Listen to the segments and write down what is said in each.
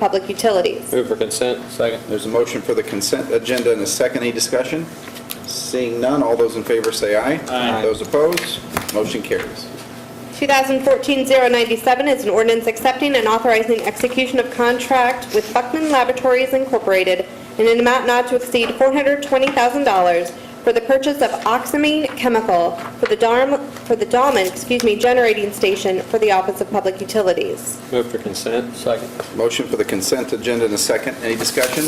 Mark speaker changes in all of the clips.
Speaker 1: Public Utilities.
Speaker 2: Move for consent. Second.
Speaker 3: There's a motion for the consent agenda and a second. Any discussion? Seeing none, all those in favor say aye.
Speaker 2: Aye.
Speaker 3: Those opposed, motion carries.
Speaker 1: 2014-097 is an ordinance accepting and authorizing execution of contract with Buckman Laboratories Incorporated in an amount not to exceed $420,000 for the purchase of oxamine chemical for the Darm, for the Dahman, excuse me, generating station for the Office of Public Utilities.
Speaker 2: Move for consent. Second.
Speaker 3: Motion for the consent agenda and a second. Any discussion?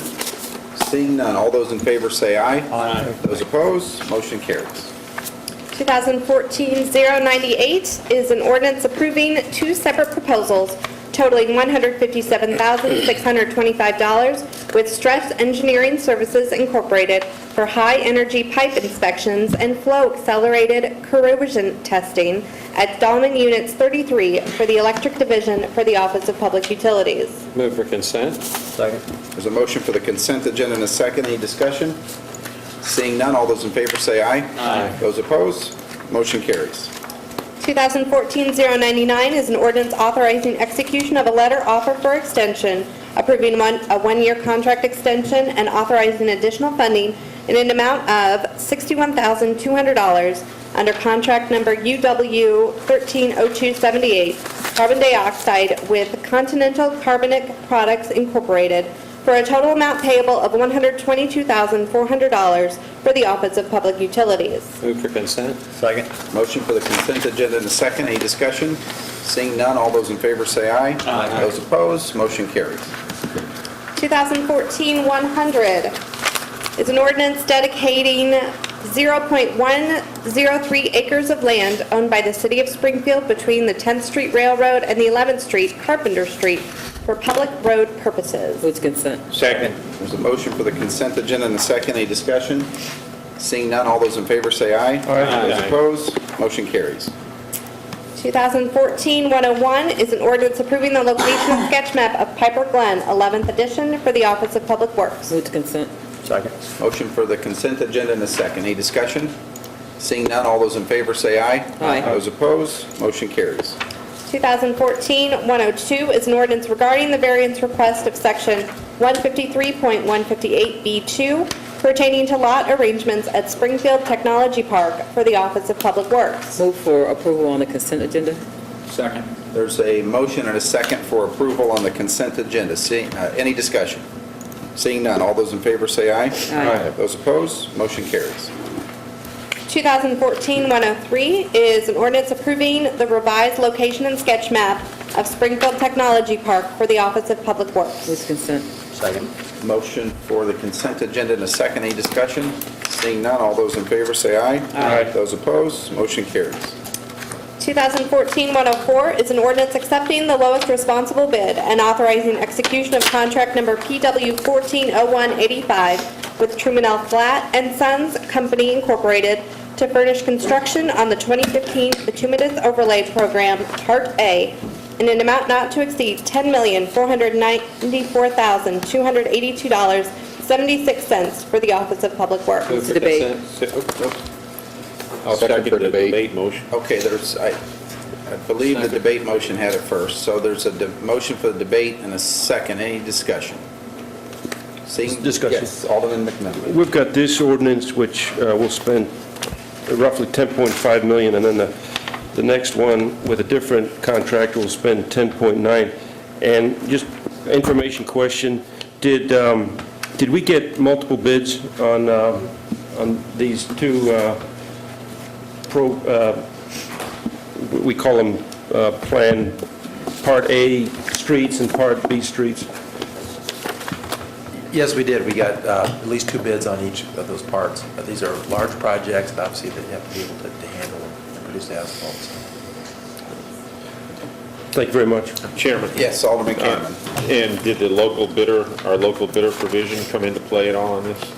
Speaker 3: Seeing none, all those in favor say aye.
Speaker 2: Aye.
Speaker 3: Those opposed, motion carries.
Speaker 1: 2014-098 is an ordinance approving two separate proposals totaling $157,625 with Stress Engineering Services Incorporated for high-energy pipe inspections and flow accelerated corrosion testing at Dahlman Units 33 for the Electric Division for the Office of Public Utilities.
Speaker 2: Move for consent.
Speaker 3: There's a motion for the consent agenda and a second. Any discussion? Seeing none, all those in favor say aye.
Speaker 2: Aye.
Speaker 3: Those opposed, motion carries.
Speaker 1: 2014-099 is an ordinance authorizing execution of a letter offer for extension, approving one, a one-year contract extension, and authorizing additional funding in an amount of $61,200 under contract number UW 130278, carbon dioxide with Continental Carbonic Products Incorporated, for a total amount payable of $122,400 for the Office of Public Utilities.
Speaker 2: Move for consent.
Speaker 4: Second.
Speaker 3: Motion for the consent agenda and a second. Any discussion? Seeing none, all those in favor say aye.
Speaker 2: Aye.
Speaker 3: Those opposed, motion carries.
Speaker 1: 2014-100 is an ordinance dedicating 0.103 acres of land owned by the City of Springfield between the 10th Street Railroad and the 11th Street Carpenter Street for public road purposes.
Speaker 5: Move to consent.
Speaker 4: Second.
Speaker 3: There's a motion for the consent agenda and a second. Any discussion? Seeing none, all those in favor say aye.
Speaker 2: Aye.
Speaker 3: Those opposed, motion carries.
Speaker 1: 2014-101 is an ordinance approving the location of sketch map of Piper Glen, 11th edition, for the Office of Public Works.
Speaker 5: Move to consent.
Speaker 4: Second.
Speaker 3: Motion for the consent agenda and a second. Any discussion? Seeing none, all those in favor say aye.
Speaker 5: Aye.
Speaker 3: Those opposed, motion carries.
Speaker 1: 2014-102 is an ordinance regarding the variance request of Section 153.158B2 pertaining to lot arrangements at Springfield Technology Park for the Office of Public Works.
Speaker 5: Move for approval on the consent agenda.
Speaker 2: Second.
Speaker 3: There's a motion and a second for approval on the consent agenda. Seeing, uh, any discussion? Seeing none, all those in favor say aye.
Speaker 5: Aye.
Speaker 3: Those opposed, motion carries.
Speaker 1: 2014-103 is an ordinance approving the revised location and sketch map of Springfield Technology Park for the Office of Public Works.
Speaker 5: Move to consent.
Speaker 4: Second.
Speaker 3: Motion for the consent agenda and a second. Any discussion? Seeing none, all those in favor say aye.
Speaker 4: Aye.
Speaker 3: Those opposed, motion carries.
Speaker 1: 2014-104 is an ordinance accepting the lowest responsible bid and authorizing execution of contract number PW 140185 with Truman L. Flat and Sons Company Incorporated to furnish construction on the 2015 Bituminous Overlay Program, Part A, in an amount not to exceed $10,494,282.76 for the Office of Public Works.
Speaker 2: Move for
Speaker 5: debate.
Speaker 2: consent. Se- oh, oh. I'll
Speaker 6: Second
Speaker 2: second
Speaker 6: for
Speaker 2: the
Speaker 6: debate.
Speaker 2: debate motion.
Speaker 3: Okay, there's, I I believe the
Speaker 2: Second.
Speaker 3: debate motion had it first, so there's a de- motion for the debate and a second. Any discussion? Seeing,
Speaker 6: Discussion.
Speaker 3: yes, Alderman McMillan.
Speaker 6: We've got this ordinance, which uh, will spend roughly 10.5 million, and then the, the next one with a different contractor will spend 10.9. And just information question, did, um, did we get multiple bids on, um, on these two uh, pro, uh, we call them uh, Plan Part A streets and Part B streets?
Speaker 7: Yes, we did. We got uh, at least two bids on each of those parts. But These are large projects, and obviously, that you have to be able to to handle and produce the asphalt. so.
Speaker 6: Thank you very much.
Speaker 8: Chairman, um,
Speaker 3: Yes,
Speaker 8: Uh,
Speaker 3: Alderman Cameron.
Speaker 8: and did the local bidder, our local bidder provision come into play at all on this?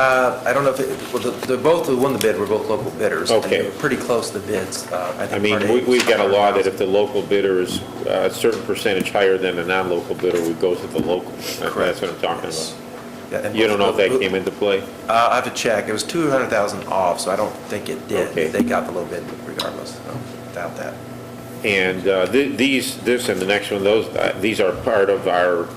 Speaker 7: Uh, I don't know if, it- well, the- the, both, who won the bid were both local bidders. and
Speaker 8: Okay.
Speaker 7: they were Pretty close, the bids. Uh,
Speaker 8: I
Speaker 7: think part
Speaker 8: mean,
Speaker 7: A
Speaker 8: we- we've got a law that
Speaker 7: was-
Speaker 8: if the local bidder is uh, a certain percentage higher than the non-local bidder, we go to the local. That- That's what I'm talking
Speaker 7: Yes.
Speaker 8: about.
Speaker 7: Yeah, and
Speaker 8: You don't know if that
Speaker 7: both-
Speaker 8: came into play?
Speaker 7: Uh, I have to check. It was 200,000 off, so I don't think it did.
Speaker 8: Okay.
Speaker 7: They got the low bid regardless, so, without that.
Speaker 8: And uh, th- these, this and the next one, those, uh, these are part of our